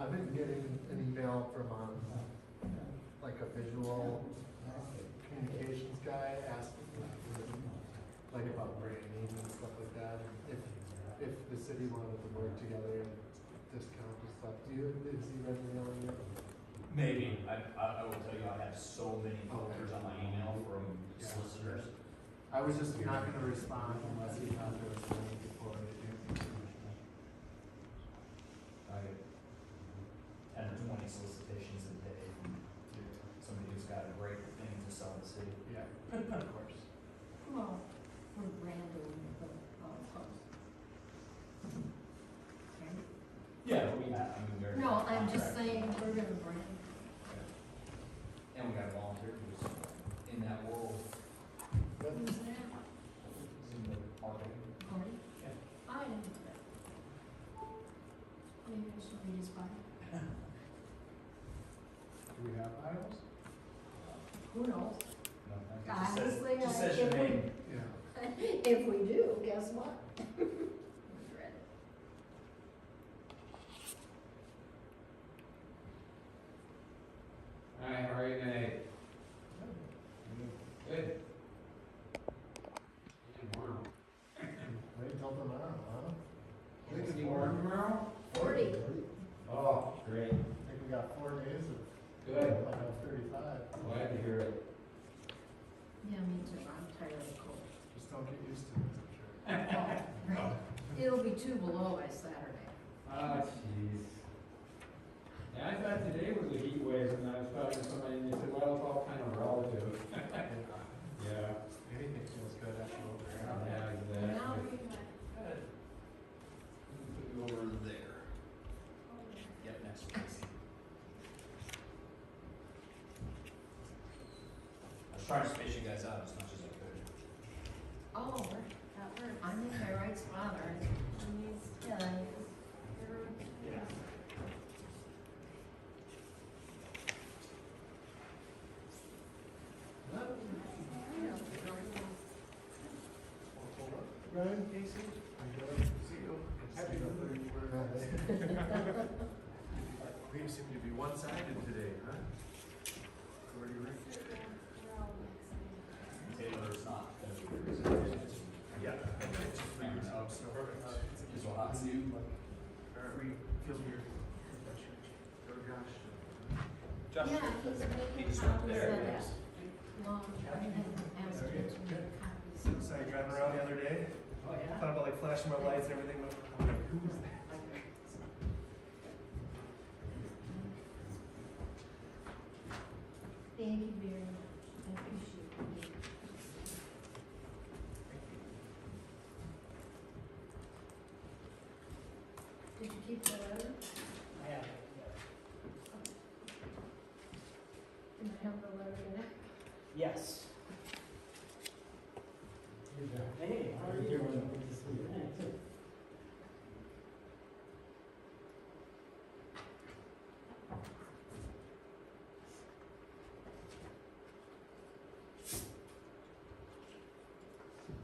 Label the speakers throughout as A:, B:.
A: I've been getting an email from, um, like a visual communications guy asking, like about branding and stuff like that. and If, if the city wanted to work together and discount and stuff, do you, is he ready to know yet?
B: Maybe, I, I, I will tell you, I have so many filters on my email from
A: Yeah.
B: solicitors.
A: I was just not gonna respond unless he thought there was something before I do.
B: I get ten to twenty solicitations a day from somebody who's got a great thing to sell the city.
A: Yeah, of course.
C: Well, we're branding the golf course. Right?
B: Yeah, we have, I mean, we're.
C: No, I'm
B: contract.
C: just saying, we're gonna brand.
B: And we got a volunteer who's in that world,
C: Who's that?
B: who's in the marketing.
C: Cory?
B: Yeah.
C: I didn't do that. Maybe I should read his bio.
A: Do we have aisles?
C: Who
B: No,
C: knows?
B: it just says-
C: Honestly, I.
B: Just says your
C: if we-
B: name.
A: Yeah.
C: If we do, guess what? We read it.
D: Alright, how are you tonight? Good. Warm.
A: Wait till tomorrow, huh?
D: Is it warm tomorrow?
C: Forty.
D: Oh, great.
A: I think we got four days of
D: Good.
A: Like I'm thirty-five,
D: Glad to hear it.
C: Yeah, me too, I'm tired of the cold. Oh,
A: just don't get used to it, I'm sure.
C: Right. It'll be two below by Saturday.
D: Ah, jeez. Yeah, I thought today was a heat wave and I was talking to somebody and they said, well, it's all kind of relative. Yeah.
A: Anything feels good after over here.
D: Yeah,
C: Now
D: exactly.
C: we got-
B: Put you over there.
C: oh,
B: Yep, next please. I was trying to space you guys out as much as I could.
C: Oh, that works. I'm in my right spot, aren't I? Yeah, I use-
B: Yeah.
A: Ryan, Casey, I got to see you. Happy to learn you were not there.
E: We seem to be one-sided today, huh? Where do you read?
B: Taylor's not gonna be the reason.
E: Yeah. Figured it out, so.
B: Is what I knew.
E: Alright, we feel weird. Go Josh.
B: Josh,
C: Yeah, he's
B: he
C: making
B: just went
C: copies
B: there.
C: of that. Long, I haven't asked
E: Okay,
C: him to
E: good.
C: make copies.
E: So I driving around the other day,
B: Oh, yeah.
E: thought about like flashing my lights and everything, but I'm like, who is that?
C: Thank you very much. I appreciate it. Did you keep the letter?
B: Yeah.
C: Did I have the letter in it?
F: Yes. Hey, how are you doing? Good to see you.
C: Well, Oh, we do for our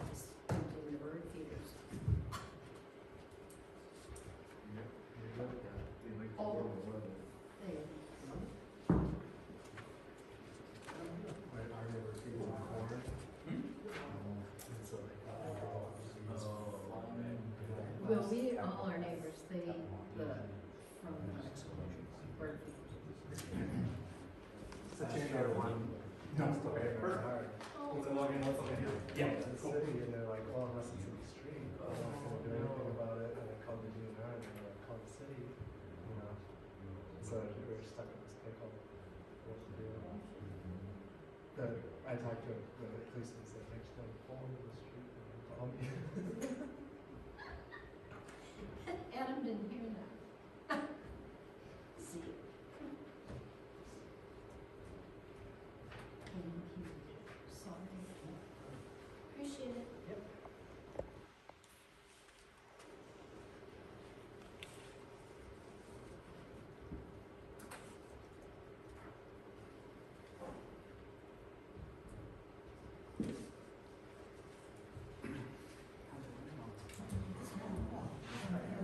C: house, we do the bird feeders. Oh. They, Oh,
A: My arm never feels in corn.
B: oh,
A: And so they got me all.
C: well, we, all our neighbors, they, the, from the bird feeders.
A: Such a good one.
E: No.
A: It's the way it works.
E: It's a long and what's the deal?
A: Yeah. The city, and they're like, oh, unless it's extreme, Um, I'm not gonna do anything about it, and I called the DNR, and then I called the city, you know. So we were stuck in this pickle. What to do? But I talked to the policeman, said, next time, fall in the street, and call me.